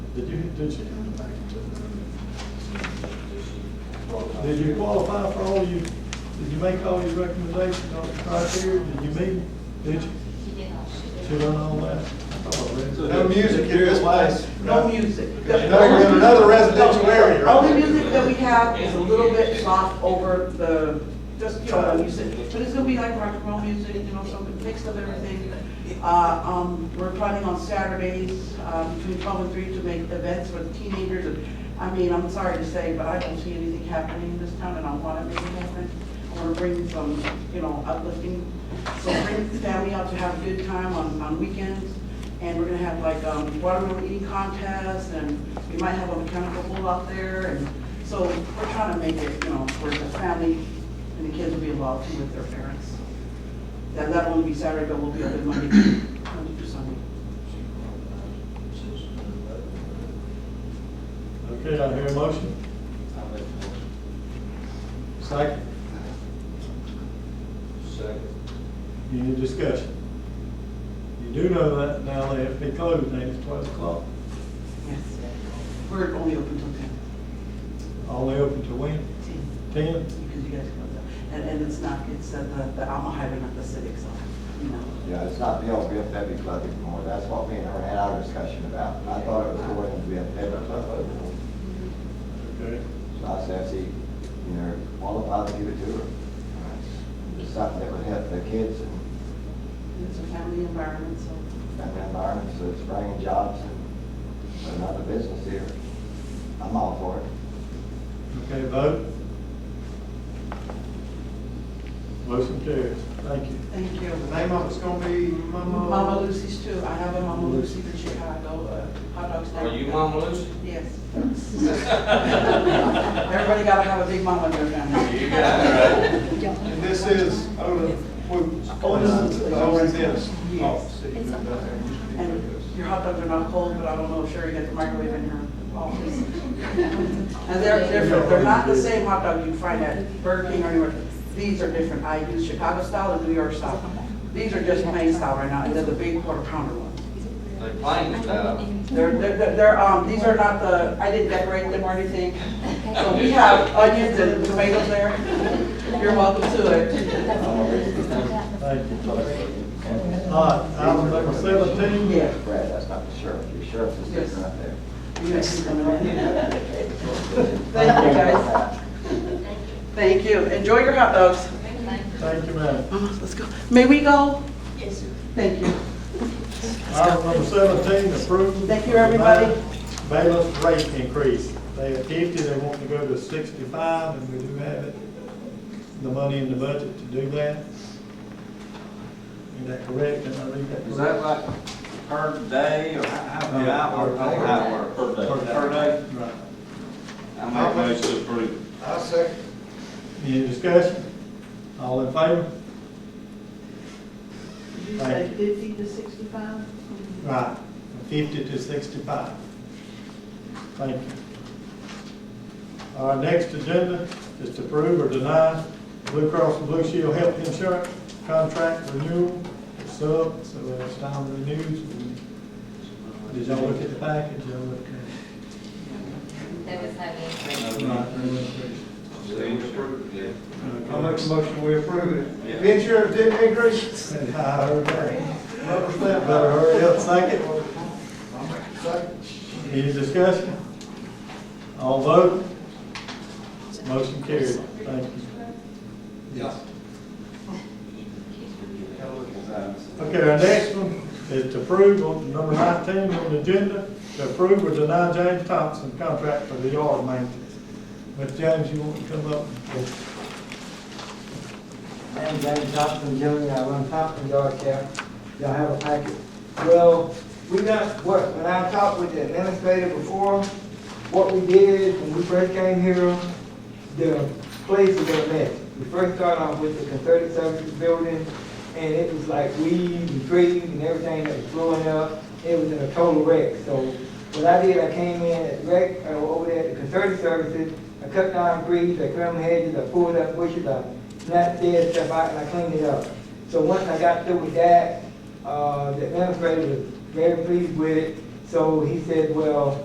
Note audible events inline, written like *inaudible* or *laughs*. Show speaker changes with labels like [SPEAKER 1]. [SPEAKER 1] Did you, did you, did you qualify for all you, did you make all your recommendations on the criteria? Did you meet? Did you?
[SPEAKER 2] She did all she did.
[SPEAKER 1] She done all that? I thought I read it.
[SPEAKER 3] No music in this place.
[SPEAKER 4] No music. The-
[SPEAKER 3] No, we have another residential area, right?
[SPEAKER 4] Only music that we have is a little bit soft over the, just, you know, music, but it's gonna be like rock and roll music, you know, some mix of everything. Uh, um, we're planning on Saturdays, uh, between twelve and three to make events for the teenagers. And, I mean, I'm sorry to say, but I don't see anything happening in this town and I wanna make it happen. I wanna bring some, you know, uplifting, so bring the family out to have a good time on, on weekends. And we're gonna have like, um, watermelon eating contest, and we might have a mechanical bull out there, and so we're trying to make it, you know, where the family and the kids will be involved too with their parents. That, that won't be Saturday, but we'll be open Monday, Monday through Sunday.
[SPEAKER 1] Okay, I hear a motion. Second.
[SPEAKER 3] Second.
[SPEAKER 1] Any discussion? You do know that now they have to be closed, now it's twelve o'clock.
[SPEAKER 4] Yes. We're only open till ten.
[SPEAKER 1] All they open to when? Ten?
[SPEAKER 4] Because you guys come up, and, and it's not, it's at the, the Alma Highway, not the civic center, you know.
[SPEAKER 5] Yeah, it's not the old VFW club anymore, that's what me and her had our discussion about. I thought it was the old VFW club overall.
[SPEAKER 1] Okay.
[SPEAKER 5] So I said, see, you know, qualified to give it to her. It's Something that would help the kids and
[SPEAKER 4] It's a family environment, so.
[SPEAKER 5] and the environment, so it's bringing jobs and another business here. I'm all for it.
[SPEAKER 1] Okay, vote. Motion carries. Thank you.
[SPEAKER 4] Thank you.
[SPEAKER 3] The name of it's gonna be Mama.
[SPEAKER 4] Mama Lucy's too. I have a Mama Lucy in Chicago, uh, hot dogs.
[SPEAKER 6] Are you Mama Lucy?
[SPEAKER 4] Yes. Everybody gotta have a big mama in their family.
[SPEAKER 6] You got it right.
[SPEAKER 3] And this is Oda Foods. Oda's oh, this. Oh, see, you moved out there. You should be
[SPEAKER 4] And
[SPEAKER 3] with us.
[SPEAKER 4] your hot dogs are not cold, but I don't know if Sherry got the microwave in her office. And they're different. They're not the same hot dog you find at Burger King or anywhere. These are different. I use Chicago style and New York style. These are just plain style right now. and They're the big quarter pounder ones.
[SPEAKER 6] They're playing style.
[SPEAKER 4] They're, they're, they're- they're, um, these are not the, I didn't decorate them or anything. So we have onions and tomatoes there. You're welcome to it.
[SPEAKER 1] Thank you. All right, item number seventeen.
[SPEAKER 4] Yeah.
[SPEAKER 5] Brad, that's not the sheriff, your sheriff is
[SPEAKER 4] Yes.
[SPEAKER 5] different up there.
[SPEAKER 4] You guys can come in. *laughs* Thank you, guys.
[SPEAKER 2] Thank you.
[SPEAKER 4] Thank you. Enjoy your hot dogs.
[SPEAKER 1] Thank you, madam.
[SPEAKER 4] Mamas, let's go. May we go?
[SPEAKER 2] Yes, sir.
[SPEAKER 4] Thank you.
[SPEAKER 1] Item number seventeen, approval.
[SPEAKER 4] Thank you, everybody.
[SPEAKER 1] Bailiff rate increase. They have fifty, they want to go to sixty-five, and we do have it, the money in the budget to do that. Is that correct? Did I read that
[SPEAKER 3] Is
[SPEAKER 1] correct?
[SPEAKER 3] that like per day or how, how,
[SPEAKER 1] No,
[SPEAKER 3] how,
[SPEAKER 1] per
[SPEAKER 3] how,
[SPEAKER 1] day.
[SPEAKER 3] how, how?
[SPEAKER 6] Per day.
[SPEAKER 3] Per day?
[SPEAKER 1] Right.
[SPEAKER 6] I make a motion to approve.
[SPEAKER 3] I second.
[SPEAKER 1] Any discussion? All in favor?
[SPEAKER 4] Did you
[SPEAKER 1] say Thank
[SPEAKER 4] fifty to sixty-five?
[SPEAKER 1] Right, from fifty to sixty-five. Thank you. Our next agenda is to approve or deny Blue Cross and Blue Shield health insurance contract renewal. It's up, so it's time to renew. Did y'all look at the package? Y'all look at
[SPEAKER 2] That was not
[SPEAKER 3] Uh,
[SPEAKER 2] it.
[SPEAKER 1] it? Right.
[SPEAKER 6] Motion to approve, yeah.
[SPEAKER 3] I make a motion, we approve it. If
[SPEAKER 6] Yeah.
[SPEAKER 3] insurance didn't
[SPEAKER 1] *laughs*
[SPEAKER 3] increase,
[SPEAKER 1] Said hi, everybody. Better hurry up, second.
[SPEAKER 3] second.
[SPEAKER 1] Any discussion? All vote? Motion carried. Thank you.
[SPEAKER 3] Yeah. Gotta look at his eyes.
[SPEAKER 1] Okay, our next one is to approve, on number nineteen on the agenda, to approve or deny James Thompson contract for the yard maintenance. Mr. James, you want to come up?
[SPEAKER 7] I'm James Thompson, Jr., I run Thompson Yard Care. Y'all have a packet. Well, we got, what, when I talked with the administrator before, what we did when we first came here, the place was a mess. We first started off with the concerted services building, and it was like weeds and trees and everything that was blowing up. It was in a total wreck. So what I did, I came in at rec, uh, over there at the concerted services, I cut down trees, I trimmed hedges, I pulled up bushes, I knocked dead stuff out, and I cleaned it up. So once I got through with that, uh, the administrator was very pleased with it. So he said, well,